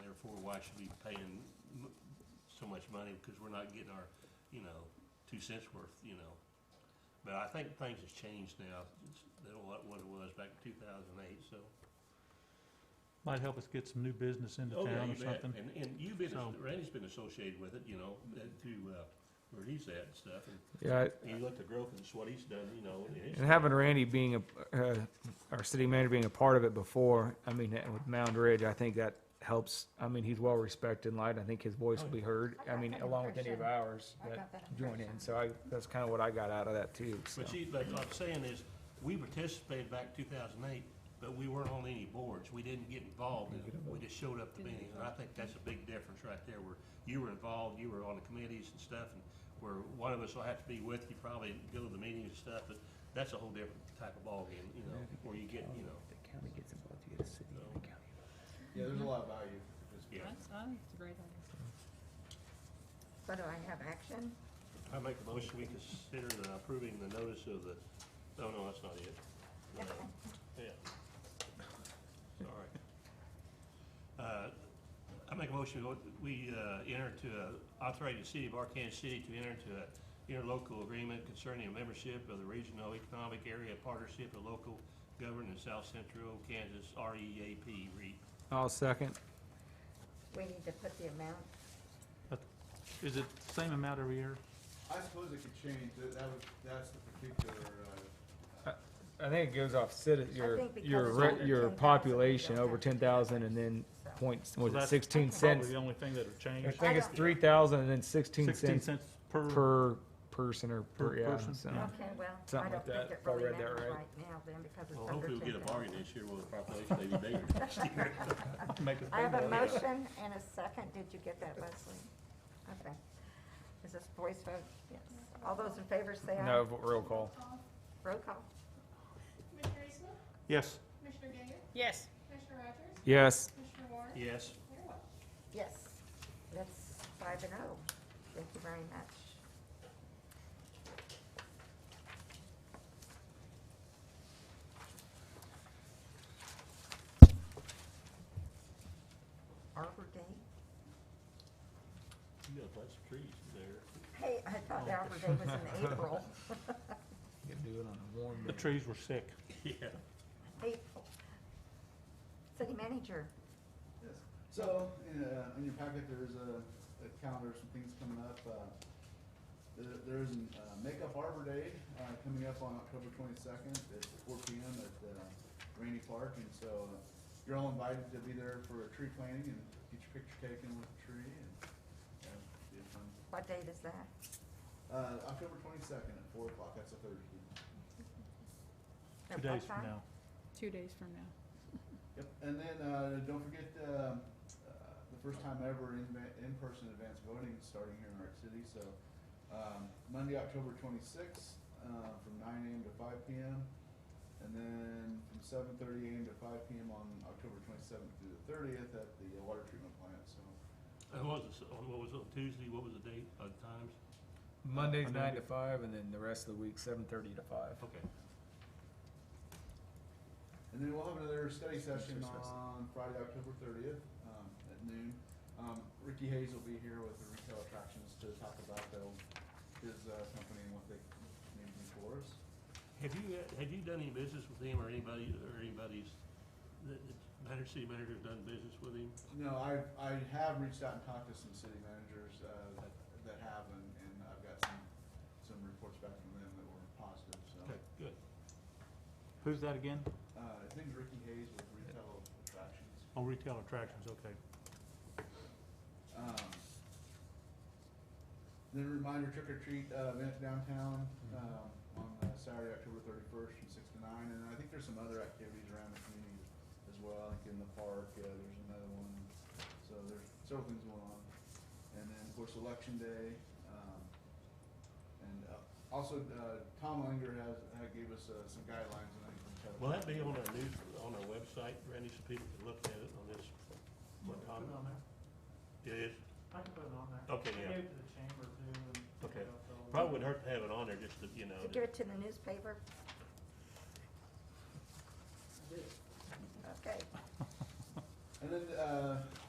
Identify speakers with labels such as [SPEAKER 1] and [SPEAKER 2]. [SPEAKER 1] therefore why should we be paying m- so much money, because we're not getting our, you know, two cents worth, you know. But I think things has changed now, it's, they don't like what it was back in two thousand and eight, so.
[SPEAKER 2] Might help us get some new business into
[SPEAKER 1] Oh, yeah,
[SPEAKER 2] town
[SPEAKER 1] you
[SPEAKER 2] or
[SPEAKER 1] bet.
[SPEAKER 2] something.
[SPEAKER 1] And, and you've been,
[SPEAKER 2] So-
[SPEAKER 1] Randy's been associated with it, you know, that to, uh, where he's at and stuff, and
[SPEAKER 3] Yeah,
[SPEAKER 1] you look at the growth and what he's done, you know, and it's.
[SPEAKER 3] and having Randy being a, uh, our city manager being a part of it before, I mean, and with Mound Ridge, I think that helps. I mean, he's well respected and light. I think his voice will be heard. I mean, along with any of ours
[SPEAKER 4] I got
[SPEAKER 3] that
[SPEAKER 4] that
[SPEAKER 3] join in. So I, that's kind of what I got out of that too, so.
[SPEAKER 1] But see, like I'm saying is, we participated back two thousand eight, but we weren't on any boards, we didn't get involved in it, we just showed up to meetings, and I think that's a big difference right there, where you were involved, you were on the committees and stuff, and where one of us will have to be with you, probably go to the meetings and stuff, but that's a whole different type of ballgame, you know, where you get, you know,
[SPEAKER 5] The county gets involved, you get a city and a county.
[SPEAKER 6] Yeah, there's a lot of value for this.
[SPEAKER 1] yeah.
[SPEAKER 7] That's, I think it's a great idea.
[SPEAKER 4] So do I have action?
[SPEAKER 1] I make a motion, we consider the approving the notice of the, oh, no, that's not it. No. Yeah. Sorry. Uh, I make a motion, we uh, enter to, a- authorate the city of Arkansas City to enter into a interlocal agreement concerning a membership of the Regional Economic Area Partnership of Local Government in South Central Kansas, E REAP, REAP.
[SPEAKER 3] I'll second.
[SPEAKER 4] We need to put the amount,
[SPEAKER 2] Is it the same amount every year?
[SPEAKER 6] I suppose it could change, that, that was, that's the particular, uh, uh,
[SPEAKER 3] I think it goes off citi,
[SPEAKER 4] I
[SPEAKER 3] your,
[SPEAKER 4] think because
[SPEAKER 3] your,
[SPEAKER 4] it's
[SPEAKER 3] re-
[SPEAKER 4] over
[SPEAKER 3] your
[SPEAKER 4] 10,000,
[SPEAKER 3] population
[SPEAKER 4] you'll
[SPEAKER 3] over
[SPEAKER 4] have to do
[SPEAKER 3] ten thousand
[SPEAKER 4] that.
[SPEAKER 3] and then
[SPEAKER 4] So-
[SPEAKER 3] points, was
[SPEAKER 2] So
[SPEAKER 3] it
[SPEAKER 2] that's
[SPEAKER 3] sixteen
[SPEAKER 2] Probably
[SPEAKER 3] cents?
[SPEAKER 2] the only thing that'll
[SPEAKER 3] I
[SPEAKER 2] change.
[SPEAKER 3] think it's
[SPEAKER 4] don't-
[SPEAKER 3] three thousand and then sixteen
[SPEAKER 2] Sixteen
[SPEAKER 3] cents
[SPEAKER 2] cents per,
[SPEAKER 3] per person or
[SPEAKER 2] per
[SPEAKER 3] per, yeah,
[SPEAKER 2] person,
[SPEAKER 3] so.
[SPEAKER 2] yeah.
[SPEAKER 4] Okay, well, I
[SPEAKER 3] Something
[SPEAKER 4] don't
[SPEAKER 3] like
[SPEAKER 4] think
[SPEAKER 3] that,
[SPEAKER 4] it
[SPEAKER 3] if I
[SPEAKER 4] really
[SPEAKER 3] read that
[SPEAKER 4] matters
[SPEAKER 3] right.
[SPEAKER 4] right now then, because it's
[SPEAKER 1] Well,
[SPEAKER 4] under
[SPEAKER 1] hopefully we'll get a
[SPEAKER 4] 10,000.
[SPEAKER 1] bargain this year, where the population may be bigger next year.
[SPEAKER 2] Make it
[SPEAKER 4] I have a
[SPEAKER 2] bigger.
[SPEAKER 4] motion and a second. Did you get that, Leslie? Okay. Is this voice vote? Yes. All those in favor say aye.
[SPEAKER 3] No, roll call.
[SPEAKER 4] Roll call.
[SPEAKER 8] Commissioner Eastman?
[SPEAKER 2] Yes,
[SPEAKER 8] Commissioner Gager?
[SPEAKER 7] Yes.
[SPEAKER 8] Commissioner Rogers?
[SPEAKER 3] Yes.
[SPEAKER 8] Commissioner Warren?
[SPEAKER 1] Yes.
[SPEAKER 8] Mayor Welch?
[SPEAKER 4] Yes. That's five and oh. Thank you very much. Arbor Day?
[SPEAKER 1] You got lots of trees there.
[SPEAKER 4] Hey, I thought Arbor Day was in April.
[SPEAKER 2] the trees were sick.
[SPEAKER 1] Yeah.
[SPEAKER 4] April. City manager,
[SPEAKER 6] yes. So, uh, in your packet, there's a, a calendar, some things coming up, uh, there, there's an, uh, Makeup Arbor Day, uh, coming up on October twenty-second, it's four P M at, uh, Rainy Park, and so, uh, you're all invited to be there for a tree planting and get your picture taken with the tree and, uh, be a fun.
[SPEAKER 4] what date is that?
[SPEAKER 6] Uh, October twenty-second at four o'clock, that's a Thursday.
[SPEAKER 4] At
[SPEAKER 2] Two
[SPEAKER 4] what
[SPEAKER 2] days from
[SPEAKER 4] time?
[SPEAKER 2] now.
[SPEAKER 7] Two days from now.
[SPEAKER 6] Yep, and then, uh, don't forget, um, uh, the first time ever in, in-person advanced voting is starting here in Art City, so, um, Monday, October twenty-sixth, uh, from nine AM to five PM, and then from seven thirty AM to five PM on October twenty-seventh through the thirtieth at the uh, water treatment plant, so.
[SPEAKER 1] And what was it, on, what was it, on Tuesday, what was the date, uh, times?
[SPEAKER 3] Monday's nine to five, and then the rest of the week, seven thirty to five.
[SPEAKER 1] Okay.
[SPEAKER 6] And then we'll have another study session
[SPEAKER 3] Sure, sure, sure.
[SPEAKER 6] on Friday, October thirtieth, um, at noon. Um, Ricky Hayes will be here with the retail attractions to talk about the, his, uh, company and what they may do for us.
[SPEAKER 1] Have you, uh, have you done any business with him or anybody, or anybody's, that, that Banner City Manager's done business with him?
[SPEAKER 6] No, I, I have reached out and talked to some city managers, uh, that, that have, and, and I've got some, some reports back from them that were positive, so.
[SPEAKER 1] Okay, good.
[SPEAKER 2] Who's that again?
[SPEAKER 6] Uh, I think Ricky Hayes with retail attractions.
[SPEAKER 2] Oh, retail attractions, okay.
[SPEAKER 6] Um, Then a reminder, trick or treat uh, event downtown, um, on uh, Saturday, October thirty-first from six to nine, and I think there's some other activities around the community as well, like in the park, uh, there's another one, so there's several things going on. And then, of course, election day, um, and uh, also, uh, Tom Langer has, had gave us uh, some guidelines and I think.
[SPEAKER 1] Will that be on our news, on our website, Randy, so people can look at it on this? What time? It is,
[SPEAKER 9] I can put it on
[SPEAKER 2] Oh,
[SPEAKER 9] there.
[SPEAKER 1] okay,
[SPEAKER 9] I
[SPEAKER 1] yeah,
[SPEAKER 9] gave it to the chamber too and.
[SPEAKER 1] okay. Probably wouldn't hurt to have it on there, just to, you know,
[SPEAKER 4] To give it to the newspaper? Okay,
[SPEAKER 6] And then, uh,